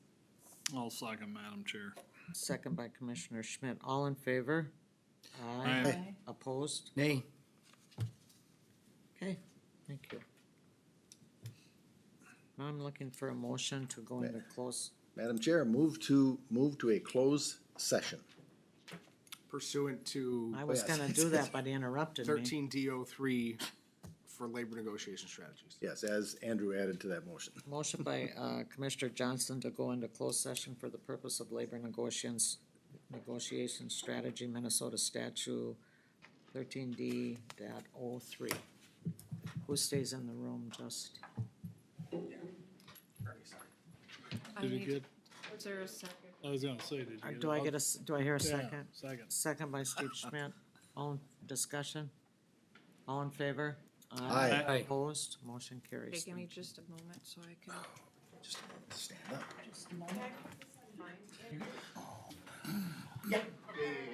I'll second, Madam Chair. Second by Commissioner Schmidt. All in favor? Aye. Opposed? Nay. Okay, thank you. Now I'm looking for a motion to go into close, Madam Chair, move to, move to a closed session. pursuant to I was yes. gonna do that, but he interrupted me. thirteen D O three for labor negotiation strategies. Yes, as Andrew added to that motion. Motion by, uh, Commissioner Johnson to go into closed session for the purpose of labor negotiations, negotiation strategy Minnesota statute thirteen D dot oh three. Who stays in the room, just? I Did you need- get, Was there a second? I was gonna say, did you Uh, get? Oh, Do I get a, s- do I hear a second? Second. Second by Steve Schmidt. All in discussion? All in favor? Aye. Aye. Opposed? Motion Okay, carries. give me just a moment so I can. Just a moment to stand up. Find it.